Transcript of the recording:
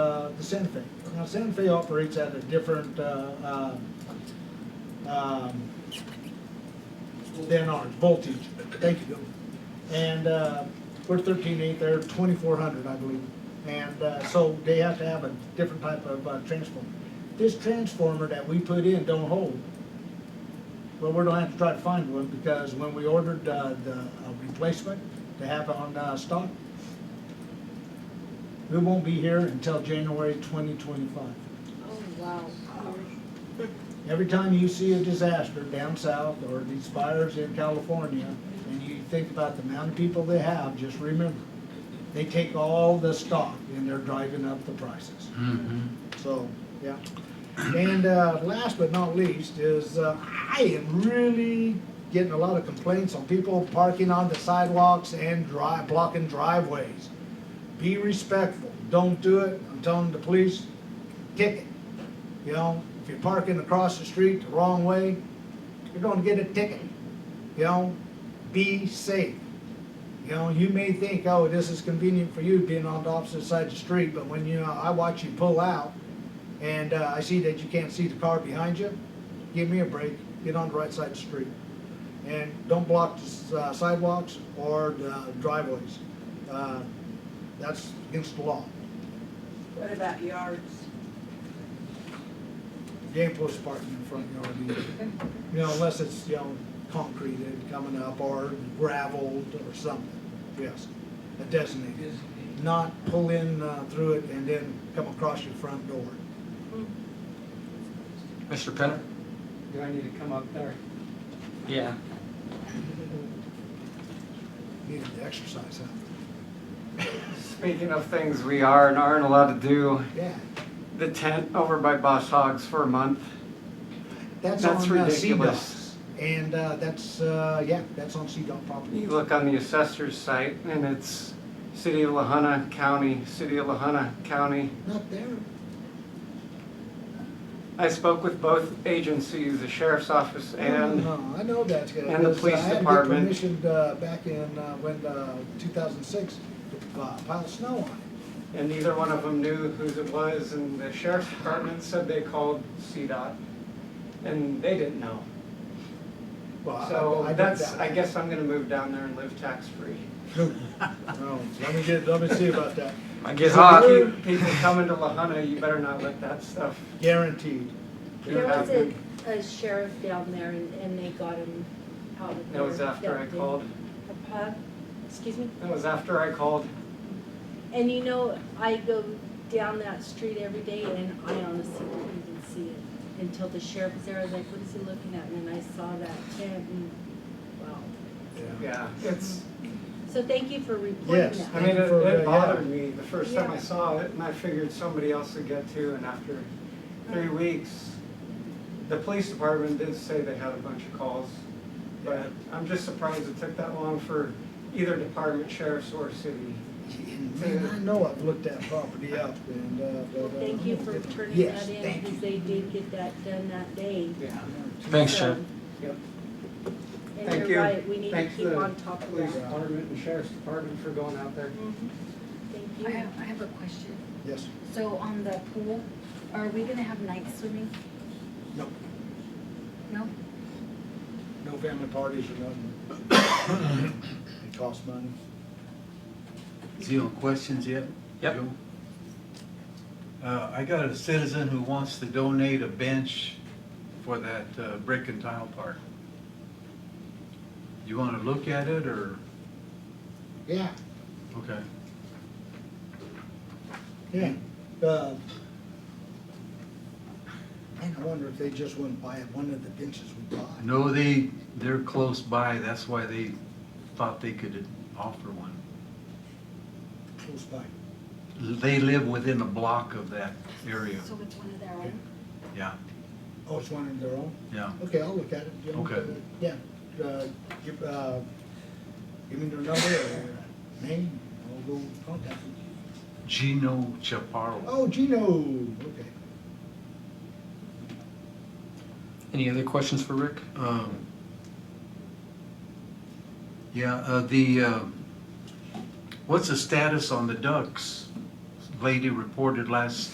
uh, Santa Fe. Now, Santa Fe operates at a different, uh, um, um, than ours, voltage, thank you. And, uh, we're thirteen eight, they're twenty-four hundred, I believe. And, uh, so they have to have a different type of, uh, transformer. This transformer that we put in don't hold. Well, we're gonna have to try to find one, because when we ordered, uh, the uh, replacement to have on, uh, stock, we won't be here until January twenty twenty-five. Oh, wow. Every time you see a disaster down south or these fires in California, and you think about the amount of people they have, just remember, they take all the stock and they're driving up the prices. So, yeah. And uh, last but not least is, uh, I am really getting a lot of complaints on people parking on the sidewalks and drive, blocking driveways. Be respectful, don't do it, I'm telling the police, kick it. You know, if you're parking across the street the wrong way, you're gonna get a ticket. You know, be safe. You know, you may think, oh, this is convenient for you being on the opposite side of the street, but when you, know, I watch you pull out and uh, I see that you can't see the car behind you, give me a break, get on the right side of the street. And don't block the s- uh, sidewalks or the driveways. Uh, That's against the law. What about yards? You ain't supposed to park in the front yard either. You know, unless it's, you know, concreted coming up or gravelled or something, yes. A designated, not pull in uh, through it and then come across your front door. Mr. Penner? Do I need to come up there? Yeah. Needed to exercise, huh? Speaking of things we are and aren't allowed to do, Yeah, the tent over by Boss Hogs for a month. that's on That's uh, ridiculous. CDOT. And uh, that's, uh, yeah, that's on CDOT property. You look on the assessor's site and it's City of Lahana County, City of Lahana County. Not there. I spoke with both agencies, the sheriff's office and No, I know that. uh, and the because, uh, police I had department. to get permission uh, back in, uh, when, uh, 2006, to uh, pile snow on it. And neither one of them knew whose it was, and the sheriff's department said they called CDOT, and they didn't know. Well, I- I So don't that's, doubt I it. guess I'm gonna move down there and live tax-free. No, let me get, let me see about that. I get So hot. you People coming to Lahana, you better not let that stuff Guaranteed. get There was a, happen. a sheriff down there and, and they got him out of there. That was after I that day. called, Huh? Excuse me? that was after I called. And you know, I go down that street every day and I honestly couldn't even see it until the sheriff was there. I was like, what is he looking at? And then I saw that tent and, wow. Yeah, it's, So thank you for reporting Yes. I that. mean, it For, uh, yeah. it bothered me the first time I Yeah. saw it, and I figured somebody else would get to, and after three weeks, the police department did say they had a bunch of calls, but I'm just surprised it took that long for either department, sheriff's or city. Man, I know I've looked that property up and, uh, but. Well, uh, thank you for turning Yes, that in thank because you. they did get that done that day. Yeah. Thanks, So- Chip. Yep. And Thank you're you. right, we need to Thanks keep the on top of Police that. department and sheriff's department for going out there. Mhm. I Thank you. have, I have a question. Yes, So on the pool, are we gonna have night swimming? no, No? no family parties or nothing. It costs money. Is he on questions yet? Yep. Joe? Uh, I got a citizen who wants to donate a bench for that uh, brick and tile park. You want to look at it or, Yeah, okay. yeah. Uh, Man, I wonder if they just wouldn't buy it, one of the benches we bought. No, they, they're close by, that's why they thought they could offer one. Close by. They live within a block of that area, So it's one of their own? yeah, Oh, it's one of their own? yeah. Okay, I'll look at it. You know, Okay. uh, Yeah, uh, give, uh, give me their number or name, I'll go contact them. Gino Chaparro. Oh, Gino, okay. Any other questions for Rick? Um, Yeah, uh, the, uh, what's the status on the ducks? Lady reported last